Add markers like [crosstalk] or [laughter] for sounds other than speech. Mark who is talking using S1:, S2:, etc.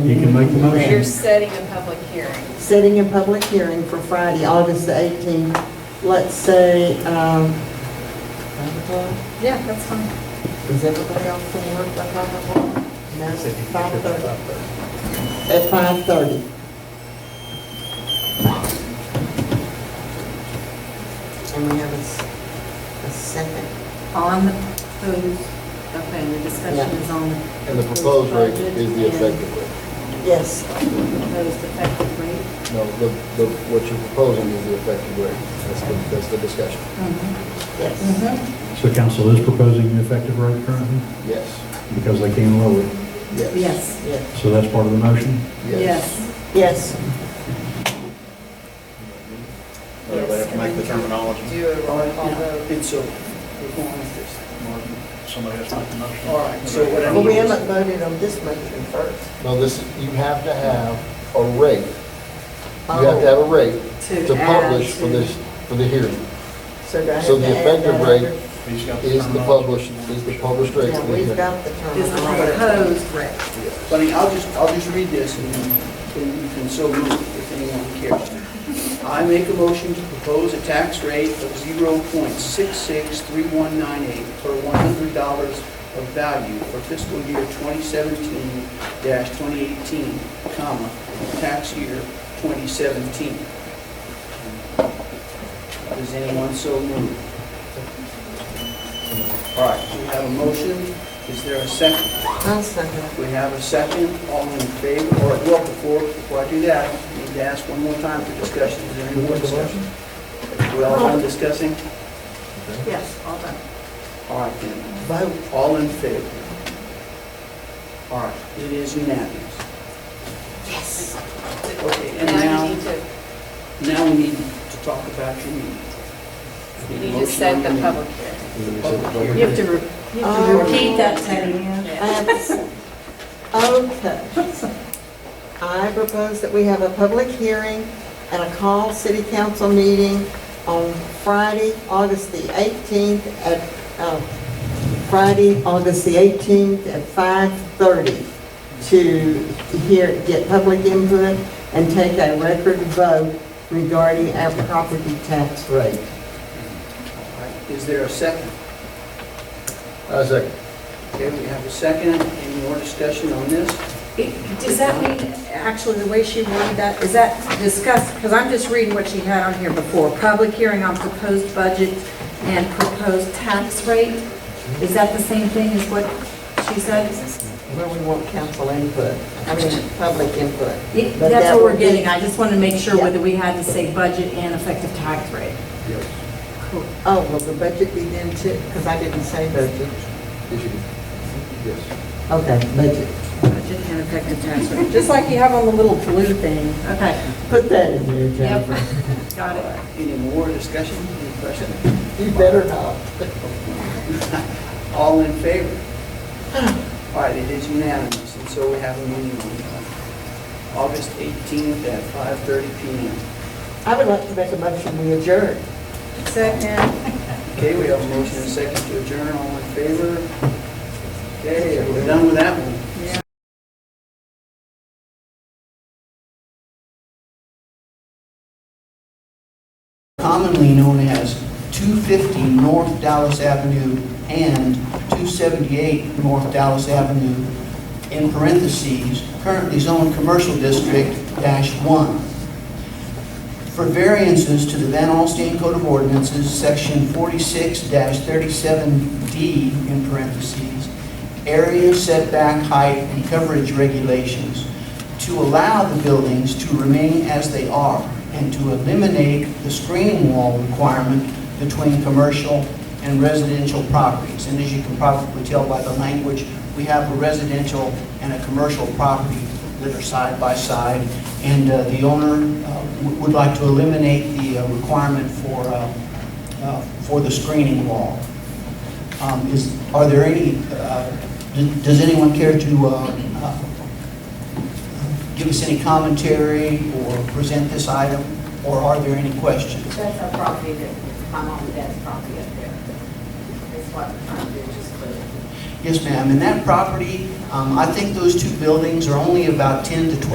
S1: You can make the
S2: You're
S1: motion.
S2: setting a public hearing.
S3: setting a public hearing for Friday, August the 18th, let's say, um, five o'clock?
S2: Yeah, that's fine.
S3: Is everybody else from work by five o'clock? No, five thirty. At five thirty. And we have a, s- a second.
S4: On the proposed, okay, the discussion is on the.
S5: And the proposed rate
S4: budget
S5: is the
S4: and
S5: effective rate.
S3: Yes,
S4: Proposed effective rate.
S5: No, the, the, what you're proposing is the effective rate. That's the, that's the discussion.
S2: Mm-hmm.
S3: yes.
S1: So council is proposing an effective rate currently
S5: Yes,
S1: because they can lower it.
S5: yes.
S4: Yes,
S3: Yes.
S1: So that's part of the motion.
S4: yes.
S3: Yes.
S6: They have to make the terminology.
S2: Do a roll call vote.
S7: And so, we're going with this.
S6: Somebody has to make the motion.
S7: All right, so what I
S3: Well, we
S7: need is,
S3: haven't voted on this motion first.
S5: No, this, you have to have a rate. You have to
S3: Oh.
S5: have a rate
S4: To
S5: to
S4: add
S5: publish for
S4: to-
S5: this, for the hearing.
S3: So do I have
S5: So the
S3: to add
S5: effective
S3: that
S5: rate
S3: under-
S6: He's got
S5: Is the
S6: terminology.
S5: published, is the published rate.
S3: Yeah, we've got the
S4: Is the
S3: terminology.
S4: proposed rate.
S7: but I mean, I'll just, I'll just read this and then then you can so move if anyone cares. I make a motion to propose a tax rate of zero point six six three one nine eight per one hundred dollars of value for fiscal year twenty seventeen twenty eighteen, comma, tax year twenty seventeen. Does anyone so move? All right, we have a motion. Is there a second?
S3: I'll second.
S7: We have a second, all in favor, or, well, before, before I do that, I need to ask one more time for discussion, is there any more discussion? We all done discussing?
S4: Yes, all done.
S7: All right, then,
S3: Vote.
S7: all in favor? All right, it is unanimous.
S3: Yes.
S7: Okay, and
S2: Now you
S7: now,
S2: need to,
S7: now we need to talk about your meeting.
S2: you
S7: Need a
S2: need to
S7: motion
S2: set
S7: on
S2: the
S7: your
S2: public hearing.
S7: meeting.
S4: You have to, re- you have to
S3: Oh.
S4: Uh, repeat that, Teddy.
S3: I have a s- Okay. I propose that we have a public hearing and a call city council meeting on Friday, August the 18th at, uh, Friday, August the 18th at 5:30 to hear, get public input and take a record vote regarding our property tax rate.
S7: All right, Is there a second?
S5: I Uh, second.
S7: Okay, we have a second, any more discussion on this?
S4: Does that mean, actually, the way she worded that, is that discussed, because I'm just reading what she had on here before, public hearing on proposed budget and proposed tax rate? Is that the same thing as what she said?
S3: Well, we want council input, I mean, public input.
S4: Yeah,
S3: But
S4: That's
S3: that
S4: what
S3: would
S4: we're
S3: be-
S4: getting, I just wanted to make sure
S3: Yeah.
S4: whether we had to say budget and effective tax rate. Cool.
S3: Oh, will the budget be then too? Because I didn't say budget.
S5: If you- Yes.
S3: Okay, budget.
S4: Budget and effective tax rate, just like you have on the little blue thing. Okay,
S3: Put that in there, Jennifer.
S4: got it.
S7: Any more discussion, any questions?
S3: You better not.
S7: [laughs] All in favor? All right, it is unanimous, and so we have a meeting on uh, August 18th at 5:30 PM.
S3: I would like to make a motion, we adjourn.
S4: Second.
S7: Okay, we have a motion and a second to adjourn, all in favor? Okay, we're done with that one. Common lien only has 250 North Dallas Avenue and 278 North Dallas Avenue, in parentheses, currently zoned commercial district dash one. For variances to the Van Alstine Code of Ordinances, section 46-37D, in parentheses, area setback height and coverage regulations, to allow the buildings to remain as they are and to eliminate the screening wall requirement between commercial and residential properties. And as you can probably tell by the language, we have a residential and a commercial property that are side by side. And uh, the owner uh, w- would like to eliminate the uh, requirement for, uh, uh, for the screening wall. Um, Is, are there any, uh, d- does anyone care to uh, uh, give us any commentary or present this item, or are there any questions?
S8: That's our property, that my mom and dad's property up there. That's what I'm trying to do, just clear. it.
S7: Yes, ma'am, and that property, um, I think those two buildings are only about 10 to 12